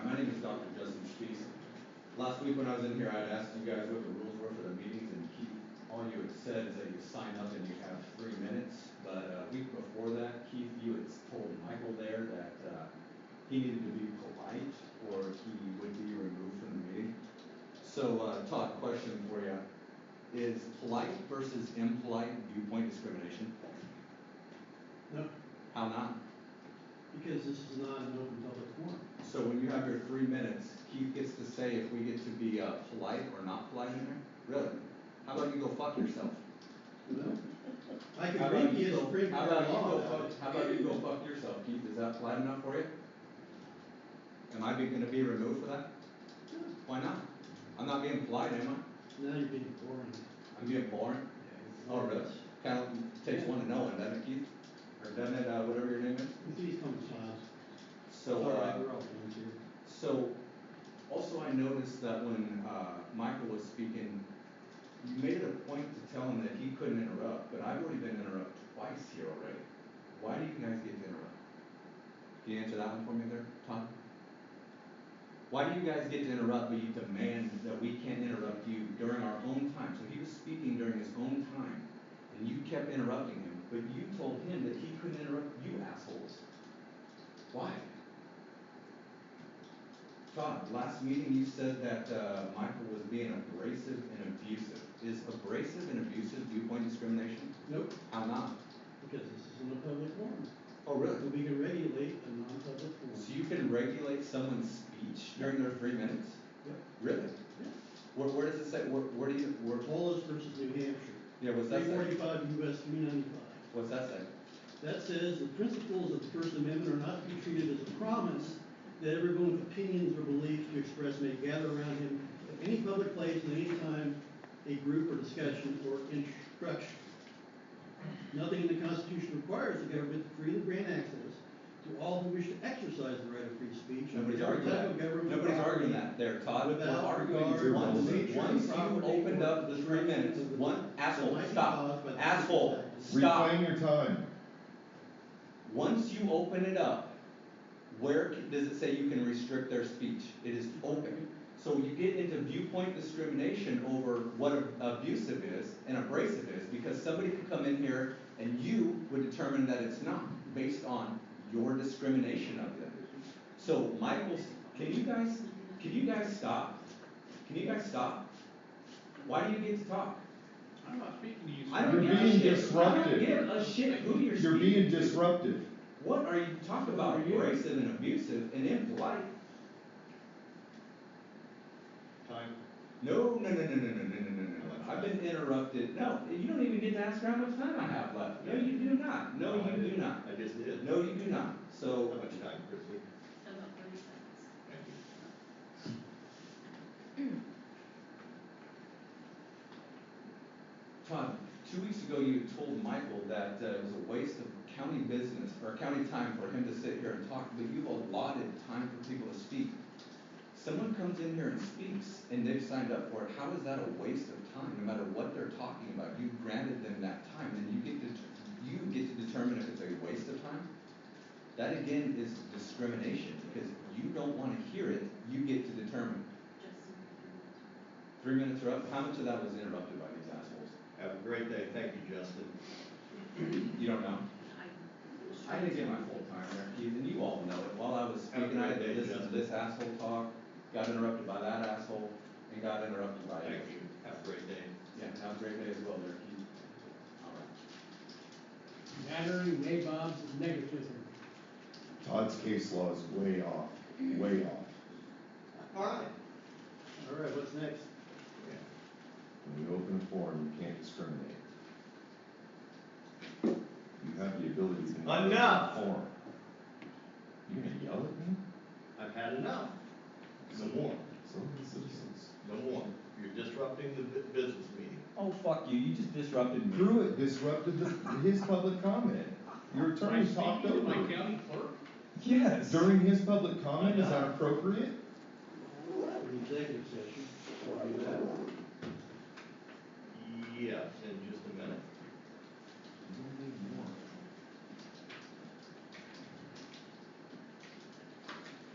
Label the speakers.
Speaker 1: Last week when I was in here, I'd asked you guys what the rules were for the meetings, and Keith, all you had said is that you sign up and you have three minutes. But a week before that, Keith, you had told Michael there that, uh, he needed to be polite, or he would be removed from the meeting. So, uh, Todd, question for you, is polite versus impolite viewpoint discrimination?
Speaker 2: No,
Speaker 1: How not?
Speaker 2: because this is not an open public forum.
Speaker 1: So when you have your three minutes, Keith gets to say if we get to be uh, polite or not polite in there? Really? How about you go fuck yourself?
Speaker 2: I
Speaker 1: How
Speaker 2: can
Speaker 1: about
Speaker 2: read
Speaker 1: you
Speaker 2: you a
Speaker 1: go-
Speaker 2: Supreme
Speaker 1: How
Speaker 2: Court
Speaker 1: about you
Speaker 2: law.
Speaker 1: go
Speaker 2: about it.
Speaker 1: fuck, how about you go fuck yourself, Keith? Is that polite enough for you? Am I be- gonna be removed for that? Why not? I'm not being polite, am
Speaker 2: Now you're being boring.
Speaker 1: I? I'm being boring? Oh, really? Kind of takes one to know one, doesn't it, Keith? Or doesn't it, uh, whatever your name is?
Speaker 2: Please come to files.
Speaker 1: So,
Speaker 2: All
Speaker 1: uh,
Speaker 2: right, we're all done here.
Speaker 1: So, also I noticed that when, uh, Michael was speaking, you made it a point to tell him that he couldn't interrupt, but I've already been interrupted twice here already. Why do you guys get to interrupt? Can you answer that one for me there, Tom? Why do you guys get to interrupt, but you demand that we can't interrupt you during our own time? So he was speaking during his own time, and you kept interrupting him, but you told him that he couldn't interrupt you assholes. Why? Todd, last meeting you said that uh, Michael was being abrasive and abusive. Is abrasive and abusive viewpoint discrimination?
Speaker 2: Nope,
Speaker 1: How not?
Speaker 2: because this isn't a public forum.
Speaker 1: Oh, really?
Speaker 2: And we can regulate a non-public forum.
Speaker 1: So you can regulate someone's speech during their three minutes?
Speaker 2: Yep.
Speaker 1: Really? Where, where does it say, where, where do you, where,
Speaker 2: Wallace versus New Hampshire.
Speaker 1: yeah, what's that
Speaker 2: Three
Speaker 1: say?
Speaker 2: forty-five US three ninety-five.
Speaker 1: What's that say?
Speaker 2: That says the principles of the First Amendment are not to be treated as a promise that everyone with opinions or beliefs to express may gather around him at any public place at any time, a group or discussion or instruction. Nothing in the Constitution requires the government to freely grant access to all who wish to exercise the right of free speech. and
Speaker 1: Nobody's
Speaker 2: every
Speaker 1: arguing
Speaker 2: type of
Speaker 1: that.
Speaker 2: government
Speaker 1: Nobody's
Speaker 2: property.
Speaker 1: arguing that there, Todd. We're
Speaker 2: Without
Speaker 1: arguing
Speaker 2: regard
Speaker 1: once,
Speaker 2: to nature,
Speaker 1: once you
Speaker 2: property,
Speaker 1: opened
Speaker 2: or
Speaker 1: up the three
Speaker 2: destruction
Speaker 1: minutes,
Speaker 2: of the-
Speaker 1: one asshole,
Speaker 2: might be
Speaker 1: stop,
Speaker 2: caused by the-
Speaker 1: asshole, stop.
Speaker 3: Reclaim your time.
Speaker 1: Once you open it up, where c- does it say you can restrict their speech? It is open. So you get into viewpoint discrimination over what ab- abusive is and abrasive is, because somebody could come in here and you would determine that it's not, based on your discrimination of them. So Michael, can you guys, can you guys stop? Can you guys stop? Why do you get to talk?
Speaker 4: I'm not speaking to you.
Speaker 1: I don't
Speaker 3: You're
Speaker 1: give a
Speaker 3: being
Speaker 1: shit.
Speaker 3: disruptive.
Speaker 1: I don't give a shit who you're
Speaker 3: You're
Speaker 1: speaking
Speaker 3: being
Speaker 1: to.
Speaker 3: disruptive.
Speaker 1: What are you talking about? Abrasive and abusive and impolite?
Speaker 4: Time.
Speaker 1: No, no, no, no, no, no, no, no, no, no. I've been interrupted. No, you don't even get to ask her how much time I have left. No, you do not. No, you do not.
Speaker 4: I just did.
Speaker 1: No, you do not.
Speaker 4: How
Speaker 1: So,
Speaker 4: much time, Chris?
Speaker 5: About thirty seconds.
Speaker 4: Thank you.
Speaker 1: Todd, two weeks ago you told Michael that uh, it was a waste of county business or county time for him to sit here and talk, but you've allotted time for people to speak. Someone comes in here and speaks and they've signed up for it. How is that a waste of time? No matter what they're talking about, you granted them that time, and you get to you get to determine if it's a waste of time. That again is discrimination because you don't want to hear it. You get to determine.
Speaker 5: Justin, if
Speaker 1: Three minutes are up. How much of that was interrupted by these assholes?
Speaker 4: Have a great day. Thank you, Justin.
Speaker 1: You don't know.
Speaker 5: you're-
Speaker 1: I didn't get my full time there, Keith, and you all know it. While I was speaking, I had to listen to this asshole talk, got interrupted by that asshole, and got interrupted by
Speaker 4: Thank
Speaker 1: you.
Speaker 4: you. Have a great day.
Speaker 1: Yeah, have a great day as well there, Keith. All right.
Speaker 2: Battery, nabobs, and negativism.
Speaker 3: Todd's case law is way off, way off.
Speaker 2: All right. All right, what's next?
Speaker 3: When you open a forum, you can't discriminate. You have the ability to. open a
Speaker 4: Enough.
Speaker 3: Forum. You gonna yell at me?
Speaker 4: I've had enough. No more.
Speaker 3: Some of the citizens.
Speaker 4: No more. You're disrupting the bu- business meeting.
Speaker 1: Oh, fuck you, you just disrupted
Speaker 3: Pruitt disrupted the, his public comment. Your attorney talked over it.
Speaker 4: county clerk?
Speaker 1: Yes.
Speaker 3: During his public comment, is that appropriate?
Speaker 2: Executive session.
Speaker 4: Yes.